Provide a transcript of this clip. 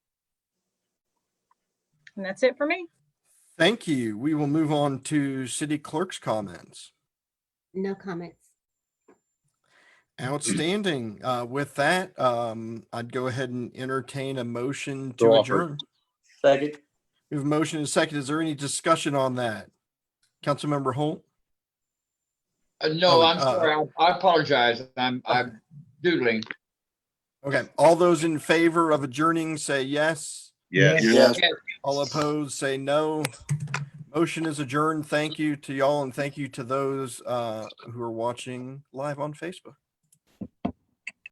And that's it for me. Thank you. We will move on to city clerk's comments. No comments. Outstanding. Uh, With that, um, I'd go ahead and entertain a motion So to offered. adjourn. Second. We have a motion and a second. Is there any discussion on that? Councilmember Holt? Uh, No, Oh, I'm uh, sorry. I- I apologize. I'm, I'm doodling. Okay, all those in favor of adjourning, say yes. Yes. Yes. All opposed, say no. Motion is adjourned. Thank you to y'all and thank you to those uh, who are watching live on Facebook.